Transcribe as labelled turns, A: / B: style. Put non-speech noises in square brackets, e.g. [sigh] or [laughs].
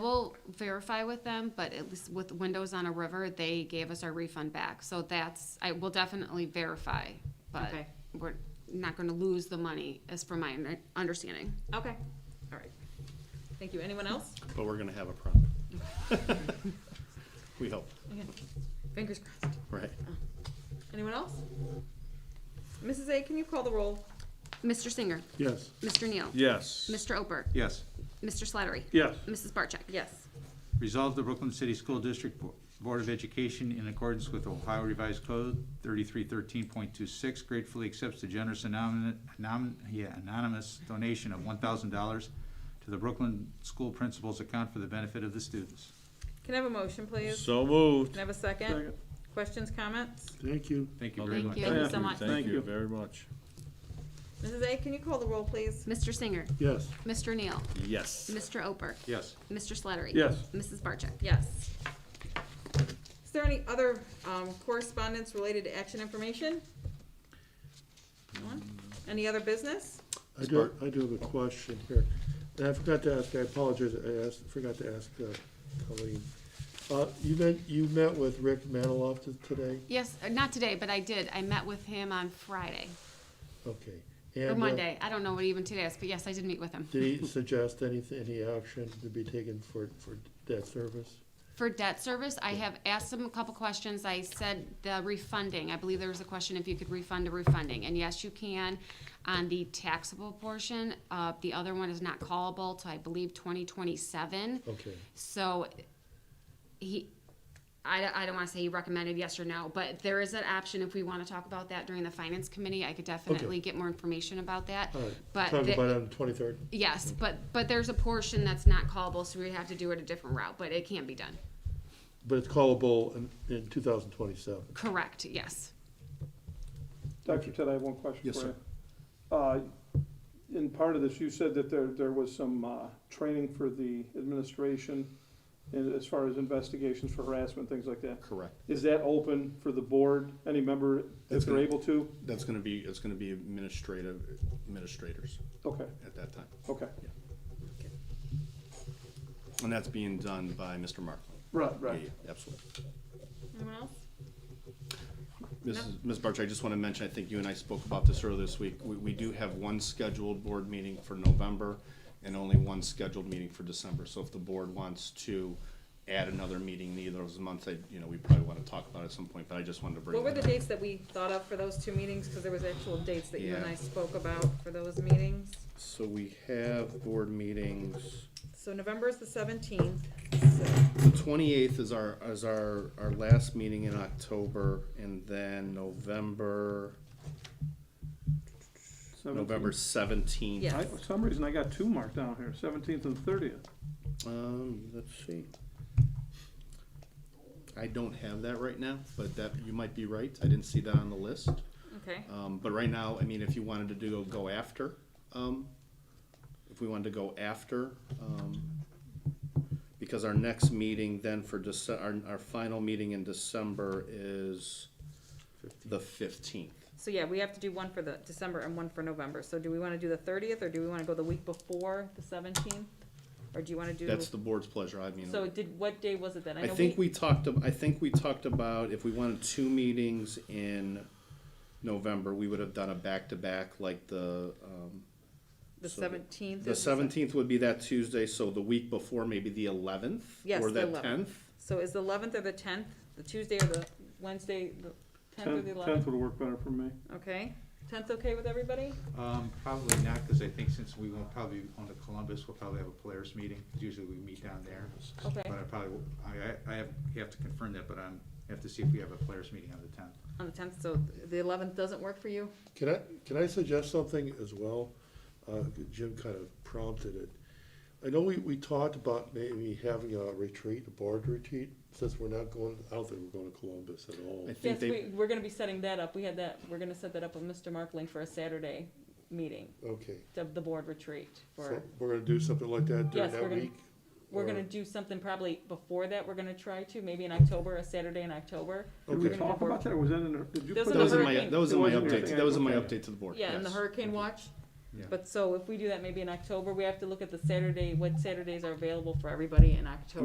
A: will verify with them, but at least with Windows on a River, they gave us our refund back. So that's, I will definitely verify, but
B: Okay.
A: we're not gonna lose the money, as from my under- understanding.
B: Okay, all right. Thank you. Anyone else?
C: But we're gonna have a problem. [laughs] We hope,
B: Okay. Fingers crossed.
C: right?
B: Anyone else? Mrs. A, can you call the roll?
A: Mr. Singer,
C: Yes.
A: Mr. Neal.
D: Yes.
A: Mr. Ober,
D: Yes.
A: Mr. Slattery.
C: Yes.
A: Mrs. Barcheck.
B: Yes.
D: Resolve the Brooklyn City School District Bo- Board of Education in accordance with Ohio Revised Code thirty-three thirteen point two six gratefully accepts the generous anonymous, yeah, anonymous donation of one thousand dollars to the Brooklyn School Principals Account for the benefit of the students.
B: Can I have a motion, please?
E: So moved.
B: Can I have a second? Questions, comments?
C: Thank you.
D: Thank you very
A: Thank
D: much.
A: you.
B: so much.
E: Thank you very much.
B: Mrs. A, can you call the roll, please?
A: Mr. Singer,
C: Yes.
A: Mr. Neal,
E: Yes.
A: Mr. Ober,
D: Yes.
A: Mr. Slattery.
C: Yes.
A: Mrs. Barcheck.
B: Yes. Is there any other um, correspondence related to action information? No one? Any other business?
F: I do, I do have a question here, and I forgot to ask, I apologize, I asked, forgot to ask uh, Colleen. Uh, you met, you met with Rick Maniloff t- today?
A: Yes, uh, not today, but I did. I met with him on Friday,
F: Okay.
A: or
F: And, uh,
A: Monday. I don't know what even today is, but yes, I did meet with him.
F: Did he suggest any, any action to be taken for, for that service?
A: For debt service, I have asked him a couple questions. I said the refunding, I believe there was a question if you could refund a refunding, and yes, you can on the taxable portion. Uh, the other one is not callable till I believe twenty twenty-seven.
F: Okay,
A: So he, I, I don't wanna say he recommended yes or no, but there is an option if we wanna talk about that during the finance committee. I could definitely get more information about that.
F: all right.
A: But
F: Talk
A: the-
F: about it Mm-hmm. on the twenty-third.
A: Yes, but, but there's a portion that's not callable, so we have to do it a different route, but it can be done.
F: But it's callable in, in two thousand twenty-seven.
A: Correct, yes.
G: Dr. Ted, I have one question for you.
F: Yes, sir.
G: Uh, In part of this, you said that there, there was some uh, training for the administration and as far as investigations for harassment, things like that.
C: Correct.
G: Is that open for the board, any member, if
C: That's
G: they're
C: it.
G: able to?
C: That's gonna be, it's gonna be administrative, administrators
G: Okay,
C: at that time.
G: okay,
C: And that's being done by Mr. Markland.
G: right,
C: Yeah,
G: right.
C: yeah, Absolutely.
B: Anyone else?
C: Mrs. Ms. Barcher, I just want to mention, I think you and I spoke about this earlier this week. We, we do have one scheduled board meeting for November and only one scheduled meeting for December. So if the board wants to add another meeting in either of those months, I, you know, we probably want to talk about it at some point, but I just wanted to bring
B: What were
C: that
B: the
C: up.
B: dates that we thought of for those two meetings? Because there was actual dates that you and
C: Yeah.
B: I spoke about for those meetings.
C: So we have board meetings,
B: So November is the seventeenth.
C: the twenty-eighth is our, is our, our last meeting in October and then November,
G: Seventeenth.
C: November seventeenth.
B: Yeah.
G: I, for some reason, I got two marked down here, seventeenth and thirtieth.
C: Um, let's see. I don't have that right now, but that, you might be right, I didn't see that on the list.
B: Okay,
C: Um, but right now, I mean, if you wanted to do, go after, um, if we wanted to go after, um, because our next meeting then for Dece- our, our final meeting in December is the fifteenth.
B: so yeah, we have to do one for the December and one for November. So do we want to do the thirtieth or do we want to go the week before the seventeenth? Or do you want to do?
C: That's the board's pleasure, I mean.
B: So did, what day was it then?
C: I
B: know
C: think we talked, ab- I think we talked about if we wanted two meetings in November, we would have done a back-to-back like the, um,
B: The
C: so the-
B: seventeenth.
C: the seventeenth would be that Tuesday, so the week before, maybe the eleventh?
B: Yes,
C: Or
B: the
C: that
B: 11th.
C: tenth?
B: So is the eleventh or the tenth, the Tuesday or the Wednesday, the tenth or the
G: Tenth
B: eleventh?
G: would work better for me.
B: Okay, tenth okay with everybody?
D: Um, probably not, because I think since we won't probably, on the Columbus, we'll probably have a players meeting, 'cause usually we meet down there.
B: Okay.
D: But I probably, will- I, I- I have, have to confirm that, but I'm, have to see if we have a players meeting on the tenth.
B: On the tenth, so the eleventh doesn't work for you?
F: Can I, can I suggest something as well? Uh, Jim kind of prompted it. I know we, we talked about maybe having a retreat, a board retreat, since we're not going, I don't think we're going to Columbus at all.
C: I
B: Yes,
C: think they,
B: we, we're gonna be setting that up. We had that, we're gonna set that up with Mr. Markling for a Saturday meeting,
F: Okay,
B: the, the board retreat
F: so
B: for,
F: we're gonna do something like that during
B: Yes, we're
F: that
B: gonna-
F: week?
B: we're
F: or-
B: gonna do something probably before that. We're gonna try to, maybe in October, a Saturday in October.
G: Did we
B: Okay.
G: talk about that, or was that in, the- did you
B: Those
G: put
B: are
C: that was in my,
B: hurricane-
C: that was in my
G: It wasn't
C: update, that was in my
G: hurricane, okay.
C: update to the board,
B: Yeah, in the
C: yes.
B: hurricane watch.
D: Yeah.
B: But so if we do that maybe in October, we have to look at the Saturday, what Saturdays are available for everybody in October.